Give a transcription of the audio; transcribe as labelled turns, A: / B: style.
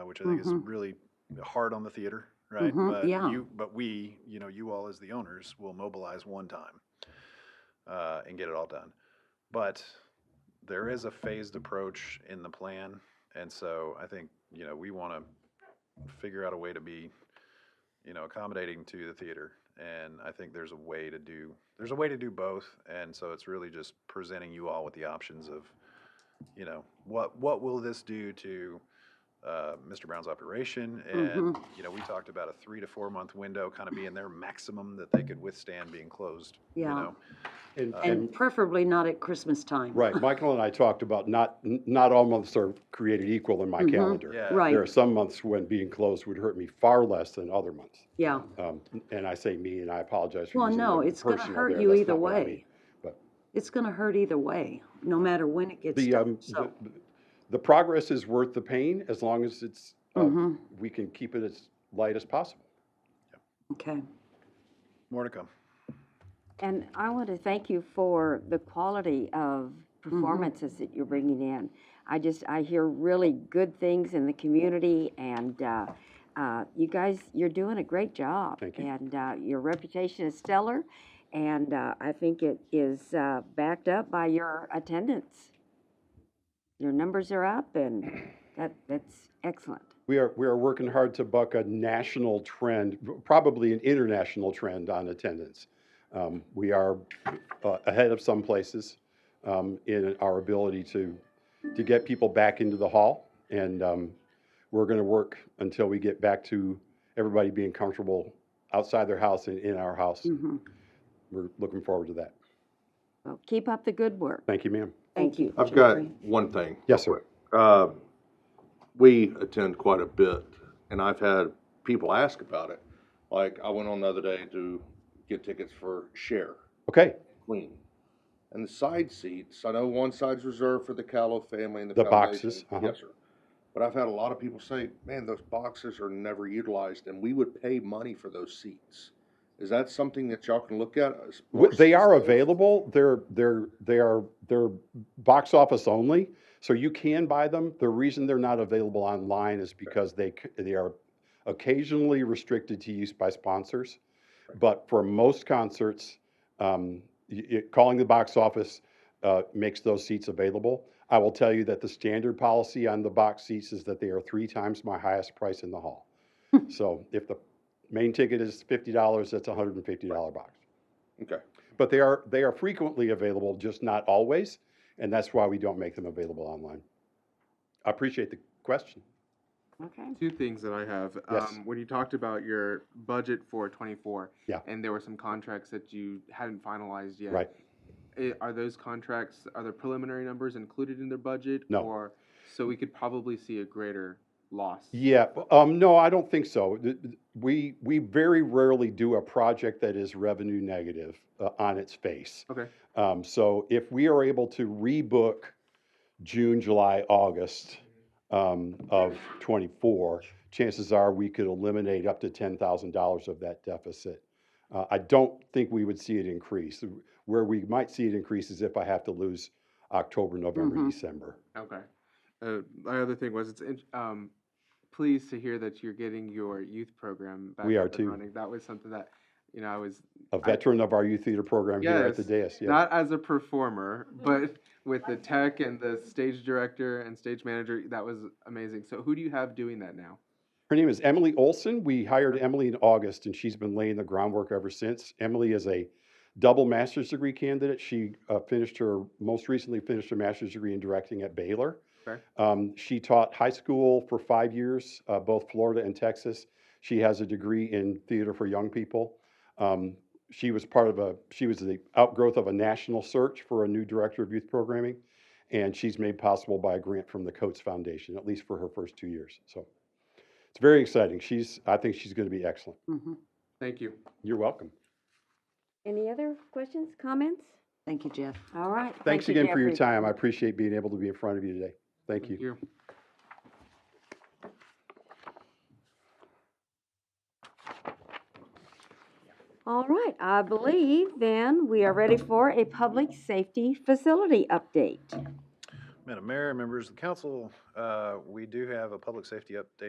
A: uh, which I think is
B: Mhm.
A: really hard on the theater, right?
B: Mhm,
A: But
B: yeah.
A: you, but we, you know, you all as the owners will mobilize one time uh, and get it all done. But there is a phased approach in the plan, and so I think you know we want to figure out a way to be, you know, accommodating to the theater. And I think there's a way to do there's a way to do both, and so it's really just presenting you all with the options of, you know, what what will this do to uh, Mr. Brown's operation, and
B: Mm-hmm.
A: you know, we talked about a three to four month window kind of being their maximum that they could withstand being closed.
B: Yeah.
A: You know?
C: And,
B: And
C: Uh, and,
B: preferably not at Christmas time.
C: right, Michael and I talked about not, n- not all months are created equal in my
B: Mhm.
C: calendar.
A: Yeah.
B: Right,
C: There are some months when being closed would hurt me far less than other months.
B: yeah.
C: Um, and I say me, and I apologize for
B: Well,
C: using the
B: no,
C: word
B: it's gonna
C: personal
B: hurt
C: there.
B: you
C: That's
B: either
C: not what I mean.
B: way.
C: but-
B: It's gonna hurt either way, no matter when it gets
C: The, um,
B: done,
C: the,
B: so.
C: the progress is worth the pain as long as it's,
B: Mm-hmm.
C: um, we can keep it as light as possible.
B: Okay,
A: More to come.
D: And I want to thank you for the quality of performances that you're bringing in. I just, I hear really good things in the community, and uh, uh, you guys, you're doing a great job.
C: Thank you.
D: And uh, your reputation is stellar, and uh, I think it is uh, backed up by your attendance. Your numbers are up, and that, that's excellent.
C: We are, we are working hard to buck a national trend, probably an international trend on attendance. Um, we are uh, ahead of some places um, in our ability to, to get people back into the hall. And um, we're going to work until we get back to everybody being comfortable outside their house and in our house.
B: mhm.
C: We're looking forward to that.
D: Well, keep up the good work.
C: Thank you, ma'am.
D: Thank you.
E: I've got
D: Jeffrey.
E: one thing.
C: Yes, sir.
E: Uh, we attend quite a bit, and I've had people ask about it. Like, I went on the other day to get tickets for Share
C: Okay,
E: Queen. And the side seats, I know one side's reserved for the Callow family and the,
C: The
E: foundation.
C: boxes, uh-huh.
E: Yes, sir. But I've had a lot of people say, man, those boxes are never utilized, and we would pay money for those seats. Is that something that y'all can look at? Is-
C: W- They are available. They're they're they are they're box office only, so you can buy them. The reason they're not available online is because they c- they are occasionally restricted to use by sponsors. But for most concerts, um, y- y- calling the box office uh, makes those seats available. I will tell you that the standard policy on the box seats is that they are three times my highest price in the hall. so if the main ticket is fifty dollars, that's a hundred and fifty dollar box.
E: Okay.
C: But they are, they are frequently available, just not always, and that's why we don't make them available online. I appreciate the question.
D: Okay.
F: Two things that I have.
C: Yes.
F: Um, when you talked about your budget for 24,
C: Yeah.
F: and there were some contracts that you hadn't finalized yet.
C: Right.
F: i- are those contracts, are the preliminary numbers included in their budget?
C: No.
F: Or, so we could probably see a greater loss?
C: Yeah, b- um, no, I don't think so. Th- th- We, we very rarely do a project that is revenue negative uh, on its face.
F: Okay.
C: Um, so if we are able to rebook June, July, August um, of '24, chances are we could eliminate up to ten thousand dollars of that deficit. Uh, I don't think we would see it increase. Where we might see it increase is if I have to lose October, November,
F: Mm-hmm.
B: Mhm.
C: December.
F: Okay. Uh, my other thing was, it's, in- um, pleased to hear that you're getting your youth program back
C: We are
F: up and
C: too.
F: running. That was something that, you know, I was
C: A veteran of our youth theater program here at the dais. yes.
F: not as a performer, but with the tech and the stage director and stage manager, that was amazing. So who do you have doing that now?
C: Her name is Emily Olson. We hired Emily in August, and she's been laying the groundwork ever since. Emily is a double master's degree candidate. She uh, finished her most recently finished her master's degree in directing at Baylor.
F: Okay.
C: Um, she taught high school for five years, uh, both Florida and Texas. She has a degree in theater for young people. Um, she was part of a she was the outgrowth of a national search for a new director of youth programming, and she's made possible by a grant from the Coates Foundation, at least for her first two years. So. It's very exciting. She's, I think she's going to be excellent.
B: mhm.
F: Thank you.
C: You're welcome.
D: Any other questions, comments?
B: Thank you, Jeff.
D: All right.
C: Thanks
D: Thank you,
C: again for your
D: Jeffrey.
C: time. I appreciate being able to be in front of you today. Thank you.
D: All right, I believe then we are ready for a public safety facility update.
A: Madam Mayor, members of the council, uh, we do have a public safety update